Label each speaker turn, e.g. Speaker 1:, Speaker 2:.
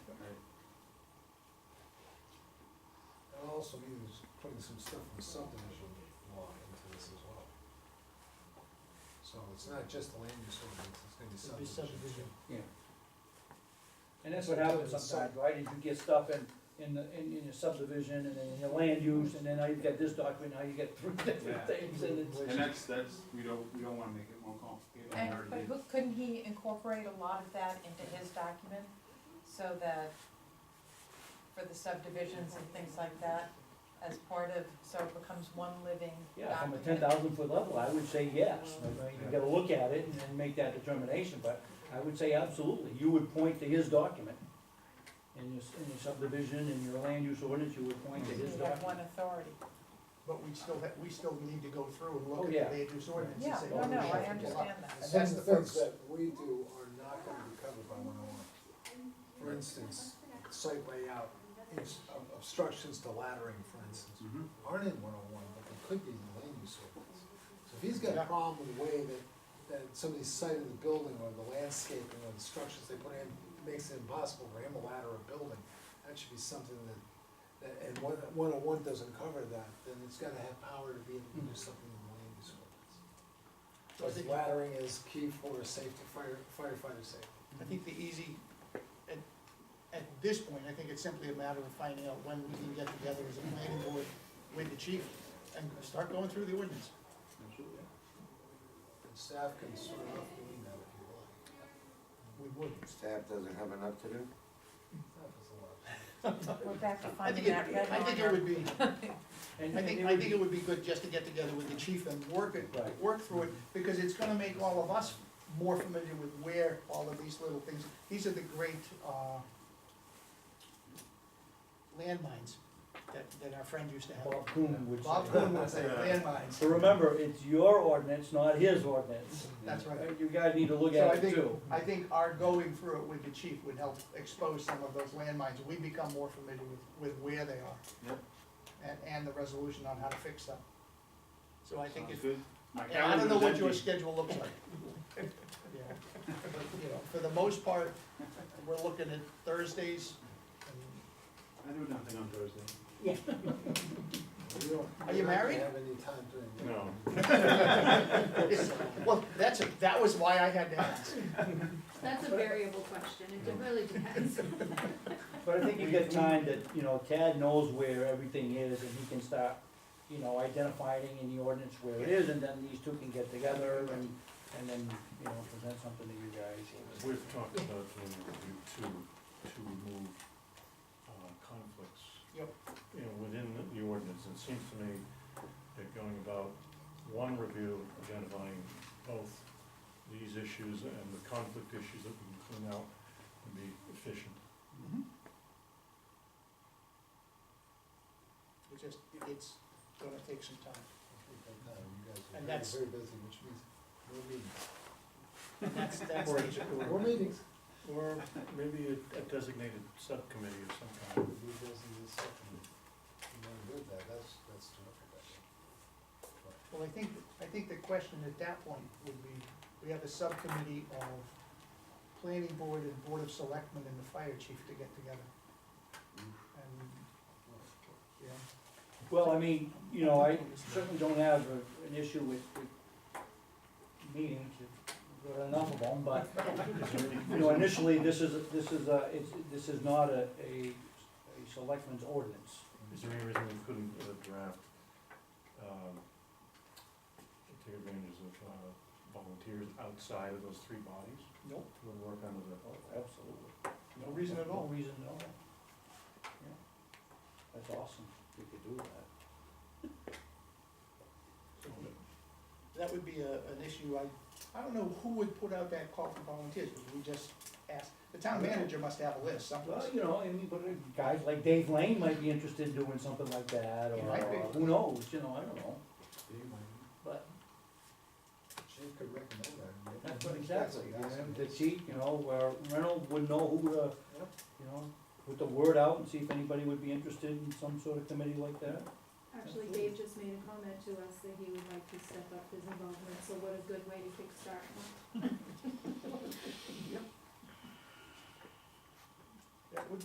Speaker 1: also means putting some stuff from subdivision law into this as well. So it's not just the land use ordinance, it's gonna be
Speaker 2: It'd be
Speaker 1: subdivision.
Speaker 2: subdivision.
Speaker 3: Yeah. And that's what happens sometimes, right, is you get stuff in, in the, in, in your subdivision, and then in your land use, and then now you've got this document, now you get three different
Speaker 4: Yeah.
Speaker 3: things, and it's.
Speaker 4: And that's, that's, we don't, we don't wanna make it more complicated.
Speaker 5: And,
Speaker 4: I already
Speaker 5: but
Speaker 4: did.
Speaker 5: who- couldn't he incorporate a lot of that into his document, so that for the subdivisions and things like that, as part of, so it becomes one living
Speaker 3: Yeah, from a
Speaker 5: document?
Speaker 3: ten thousand foot level, I would say yes, I mean, you gotta look at it and then make that determination, but I would say absolutely, you would point to his document. In your, in your subdivision, in your land use ordinance, you would point to his
Speaker 5: You have
Speaker 3: document.
Speaker 5: one authority.
Speaker 2: But we still, ha- we still need to go through and
Speaker 3: Oh,
Speaker 2: look
Speaker 3: yeah.
Speaker 2: at the land use ordinance and
Speaker 5: Yeah,
Speaker 2: say.
Speaker 5: no,
Speaker 2: oh, we
Speaker 5: no, I
Speaker 2: should do that.
Speaker 5: understand that.
Speaker 1: And that's the things that we do are not gonna be covered by one oh one. For instance, site layout, ins- ob- obstructions to laddering, for instance,
Speaker 4: Mhm.
Speaker 1: aren't in one oh one, but they could be in the land use ordinance. So if he's got a
Speaker 2: Yeah.
Speaker 1: problem with the way that, that somebody's site of the building or the landscaping or the structures they put in makes it impossible for him to ladder a building, that should be something that, that, and one, one oh one doesn't cover that, then it's gotta have power to be able to do something in the land use ordinance.
Speaker 2: So Hmm. I think-
Speaker 1: Laddering is key for safety, fire, firefighter safety.
Speaker 2: I think the easy, at, at this point, I think it's simply a matter of finding out when we can get together as a planning board with the chief and start going through the ordinance.
Speaker 4: Absolutely.
Speaker 1: And staff can start off doing that if you like.
Speaker 2: We would.
Speaker 6: Staff doesn't have enough to do?
Speaker 1: Staff is a lot.
Speaker 5: We're back to
Speaker 2: I think,
Speaker 5: finding
Speaker 2: it-
Speaker 5: that red
Speaker 2: I think it
Speaker 5: line.
Speaker 2: would be,
Speaker 3: And-
Speaker 2: I
Speaker 3: and
Speaker 2: think,
Speaker 3: it
Speaker 2: I
Speaker 3: would
Speaker 2: think
Speaker 3: be-
Speaker 2: it would be good just to get together with the chief and work it,
Speaker 3: Right.
Speaker 2: work through it, because it's gonna make all of us more familiar with where all of these little things, these are the great, uh, landmines that, that our friend used to have.
Speaker 3: Bob Coon would say.
Speaker 2: Bob Coon would say landmines,
Speaker 3: So remember, it's your ordinance, not his ordinance.
Speaker 2: that's right.
Speaker 3: You guys need to look
Speaker 2: So I
Speaker 3: at it
Speaker 2: think,
Speaker 3: too.
Speaker 2: I think our going through it with the chief would help expose some of those landmines, we become more familiar with, with where they are.
Speaker 4: Yep.
Speaker 2: And, and the resolution on how to fix them. So I think
Speaker 4: Sounds
Speaker 2: if,
Speaker 4: good. My
Speaker 2: and I don't know
Speaker 4: calendar's
Speaker 2: what your
Speaker 4: empty.
Speaker 2: schedule looks like. Yeah, But, you know, for the most part, we're looking at Thursdays, and
Speaker 4: I do nothing on Thursday.
Speaker 1: We don't-
Speaker 2: Are you
Speaker 1: we don't
Speaker 2: married?
Speaker 1: Have any time during the.
Speaker 4: No.
Speaker 2: it's- well, that's, a- that was why I had to ask.
Speaker 7: That's a variable question, it de- really depends.
Speaker 3: But I think you get time that, you know, Tad knows where everything is and he can start, you know, identifying in the ordinance where it is and then these two can get together and, and then, you know, present something to you guys.
Speaker 8: We've talked about doing a review to, to remove uh, conflicts.
Speaker 2: Yep.
Speaker 8: You know, within the- the ordinance, it seems to me that going about one review, identifying both these issues and the conflict issues that we can clean out would be efficient.
Speaker 2: It just, it's gonna take some time.
Speaker 1: No, you guys
Speaker 2: And
Speaker 1: are
Speaker 2: that's-
Speaker 1: very, very busy, which means no meetings.
Speaker 2: That's, that's
Speaker 8: Or-
Speaker 2: the issue.
Speaker 8: or-
Speaker 1: More meetings.
Speaker 8: Or maybe a- a designated subcommittee of some kind.
Speaker 1: You guys need to set them. You wanna do that, that's, that's terrific. I think.
Speaker 2: Well, I think, I think the question at that point would be, we have a subcommittee of planning board and board of selectmen and the fire chief to get together. And, yeah,
Speaker 3: Well, I mean, you know, I certainly don't have a- an issue with, with meetings, we've got enough of them, but, you know, initially, this is, this is a, it's, this is not a, a, a selectman's ordinance.
Speaker 8: Is there any reason we couldn't uh, draft, um, take advantage of uh, volunteers outside of those three bodies
Speaker 2: nope,
Speaker 8: to work under the?
Speaker 3: Oh, Absolutely.
Speaker 2: no reason at all.
Speaker 3: No reason at all. Yeah. That's awesome, if we could do that.
Speaker 2: That would be a, an issue, I, I don't know who would put out that call for volunteers, because we just asked, the town manager must have a list someplace.
Speaker 3: Well, you know, I mean, but uh, guys like Dave Lane might be interested in doing something like that,
Speaker 2: He
Speaker 3: or
Speaker 2: might be.
Speaker 3: uh, who knows, you know, I don't know,
Speaker 1: You might-
Speaker 3: but.
Speaker 1: Chief could recommend that. and maybe-
Speaker 3: That's what exactly, you
Speaker 1: That's what
Speaker 3: know,
Speaker 1: he
Speaker 3: the
Speaker 1: does.
Speaker 3: chief, you know, where Reynolds would know who to,
Speaker 1: Yep.
Speaker 3: you know, put the word out and see if anybody would be interested in some sort of committee like that.
Speaker 7: Actually, Dave just made a comment to us that he would like to step up his involvement, so what a good way to kickstart one.
Speaker 2: That would